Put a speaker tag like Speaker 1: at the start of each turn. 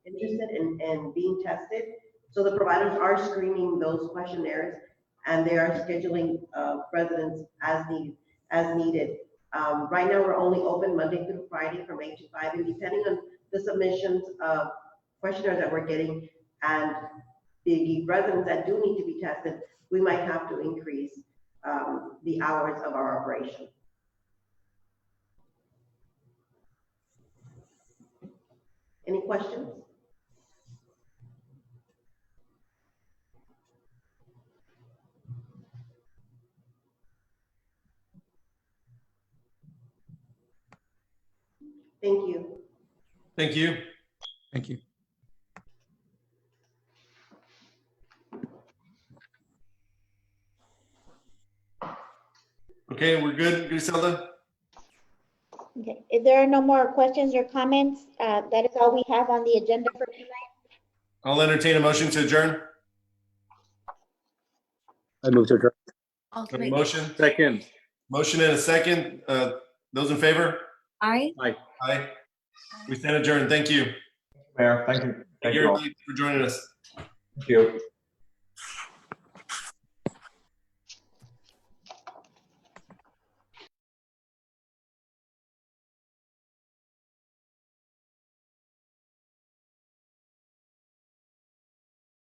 Speaker 1: interested in, in being tested. So the providers are screening those questionnaires and they are scheduling, uh, residents as need, as needed. Um, right now, we're only open Monday through Friday from eight to five and depending on the submissions of questionnaires that we're getting and the residents that do need to be tested, we might have to increase, um, the hours of our operation. Any questions? Thank you.
Speaker 2: Thank you.
Speaker 3: Thank you.
Speaker 2: Okay, we're good, Griselda?
Speaker 4: Okay, if there are no more questions or comments, uh, that is all we have on the agenda for tonight.
Speaker 2: I'll entertain a motion to adjourn.
Speaker 5: I move to adjourn.
Speaker 2: A
Speaker 6: Ultimate.
Speaker 2: Motion,
Speaker 5: Second.
Speaker 2: motion and a second. Uh, those in favor?
Speaker 6: Aye.
Speaker 2: Aye. We stand adjourned. Thank you.
Speaker 7: Mayor, thank you.
Speaker 2: Thank
Speaker 7: Thank
Speaker 2: you
Speaker 7: you all.
Speaker 2: everybody for joining us.
Speaker 7: Thank you.